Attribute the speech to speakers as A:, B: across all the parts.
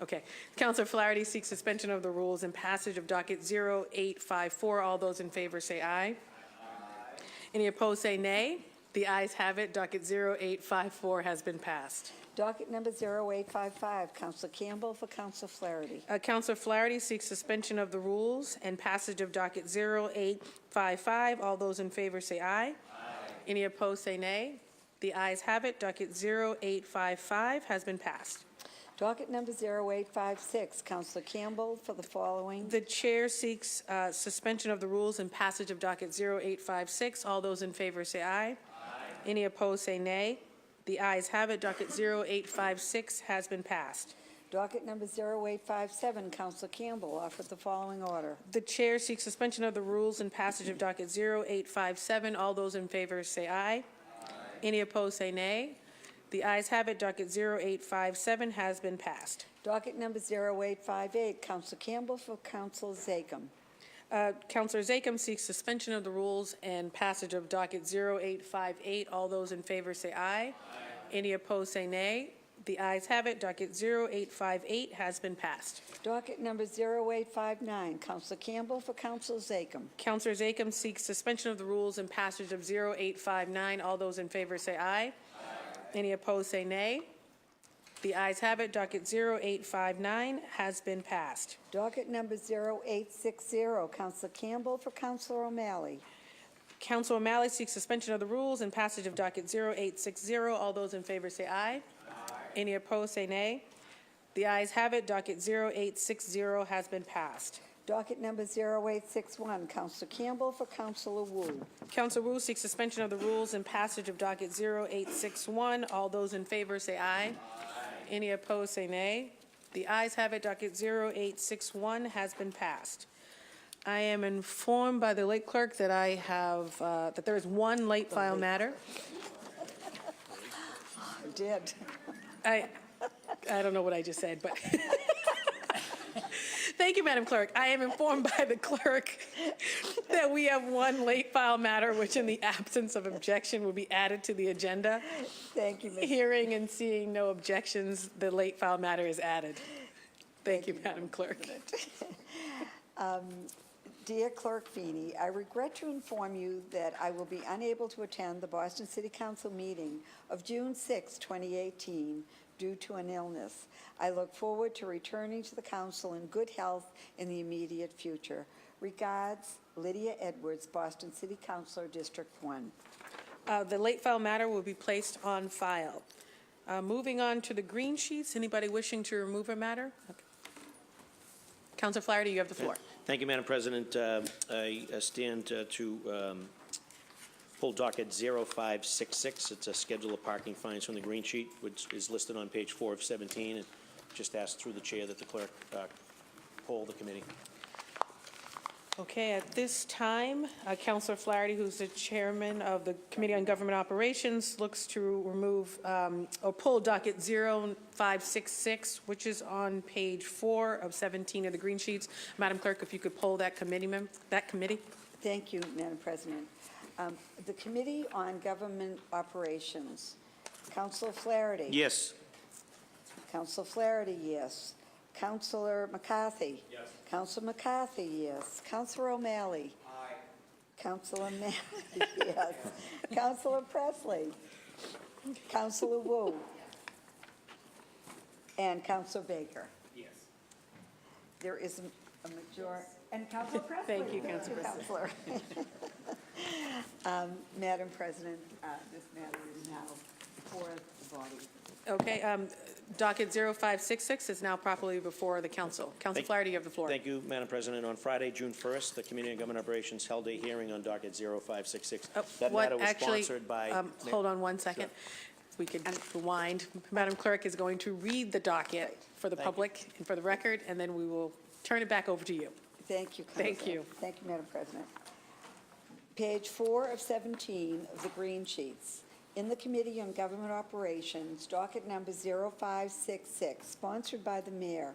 A: Okay. Counselor Flaherty seeks suspension of the rules and passage of docket 0854. All those in favor say aye. Any opposed say nay. The ayes have it. Docket 0854 has been passed.
B: Docket number 0855, Counselor Campbell for Counselor Flaherty.
A: Uh, Counselor Flaherty seeks suspension of the rules and passage of docket 0855. All those in favor say aye. Any opposed say nay. The ayes have it. Docket 0855 has been passed.
B: Docket number 0856, Counselor Campbell for the following.
A: The chair seeks uh, suspension of the rules and passage of docket 0856. All those in favor say aye. Any opposed say nay. The ayes have it. Docket 0856 has been passed.
B: Docket number 0857, Counselor Campbell offered the following order.
A: The chair seeks suspension of the rules and passage of docket 0857. All those in favor say aye. Any opposed say nay. The ayes have it. Docket 0857 has been passed.
B: Docket number 0858, Counselor Campbell for Counselor Zachem.
A: Uh, Counselor Zachem seeks suspension of the rules and passage of docket 0858. All those in favor say aye. Any opposed say nay. The ayes have it. Docket 0858 has been passed.
B: Docket number 0859, Counselor Campbell for Counselor Zachem.
A: Counselor Zachem seeks suspension of the rules and passage of 0859. All those in favor say aye. Any opposed say nay. The ayes have it. Docket 0859 has been passed.
B: Docket number 0860, Counselor Campbell for Counselor O'Malley.
A: Counsel O'Malley seeks suspension of the rules and passage of docket 0860. All those in favor say aye. Any opposed, say nay. The ayes have it, docket 0860 has been passed.
B: Docket number 0861, Counselor Campbell for Counselor Wu.
A: Counsel Wu seeks suspension of the rules and passage of docket 0861. All those in favor say aye. Any opposed, say nay. The ayes have it, docket 0861 has been passed. I am informed by the late clerk that I have, uh, that there is one late file matter.
B: I did.
A: I, I don't know what I just said, but. Thank you, Madam Clerk. I am informed by the clerk that we have one late file matter, which in the absence of objection will be added to the agenda.
B: Thank you, Ms.
A: Hearing and seeing no objections, the late file matter is added. Thank you, Madam Clerk.
B: Dear Clerk Feeney, I regret to inform you that I will be unable to attend the Boston City Council meeting of June 6, 2018, due to an illness. I look forward to returning to the council in good health in the immediate future. Regards, Lydia Edwards, Boston City Councilor, District 1.
A: Uh, The late file matter will be placed on file. Uh, Moving on to the green sheets, anybody wishing to remove a matter? Okay. Counselor Flaherty, you have the floor.
C: Thank you, Madam President. Uh, I uh, stand uh, to um, pull docket 0566. It's a schedule of parking fines from the green sheet, which is listed on page four of 17, and just ask through the chair that the clerk uh, poll the committee.
A: Okay, at this time, uh, Counselor Flaherty, who's the chairman of the Committee on Government Operations, looks to remove, um, or pull docket 0566, which is on page four of 17 of the green sheets. Madam Clerk, if you could poll that committee, mem- that committee?
B: Thank you, Madam President. Um, The Committee on Government Operations, Counselor Flaherty.
C: Yes.
B: Counsel Flaherty, yes. Counselor McCarthy? Yes. Counsel McCarthy, yes. Counselor O'Malley? Aye. Counselor Manley, yes. Counselor Presley? Counselor Wu? And Counselor Baker? Yes. There is a- a major, and Counselor Presley?
A: Thank you, Counselor Presley.
B: Counselor. Um, Madam President, uh, this matter is now before the body.
A: Okay, um, docket 0566 is now properly before the council. Counselor
C: Thank-
A: Flaherty, you have the floor.
C: Thank you, Madam President. On Friday, June 1st, the Committee on Government Operations held a hearing on docket 0566.
A: Oh,
C: That
A: what-
C: matter was
A: actually,
C: sponsored by...
A: um,
C: Ma-
A: Hold on one second. We could rewind. Madam Clerk is going to read the docket for the
C: Thank you.
A: public and for the record, and then we will turn it back over to you.
B: Thank you, Counselor.
A: Thank you.
B: Thank you, Madam President. Page four of 17 of the green sheets. In the Committee on Government Operations, docket number 0566, sponsored by the mayor.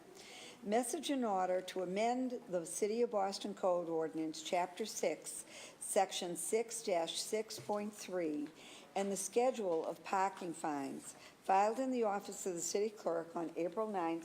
B: Message in order to amend the City of Boston Code Ordinance, Chapter 6, Section 6-6.3, and the schedule of parking fines, filed in the office of the city clerk on April 9,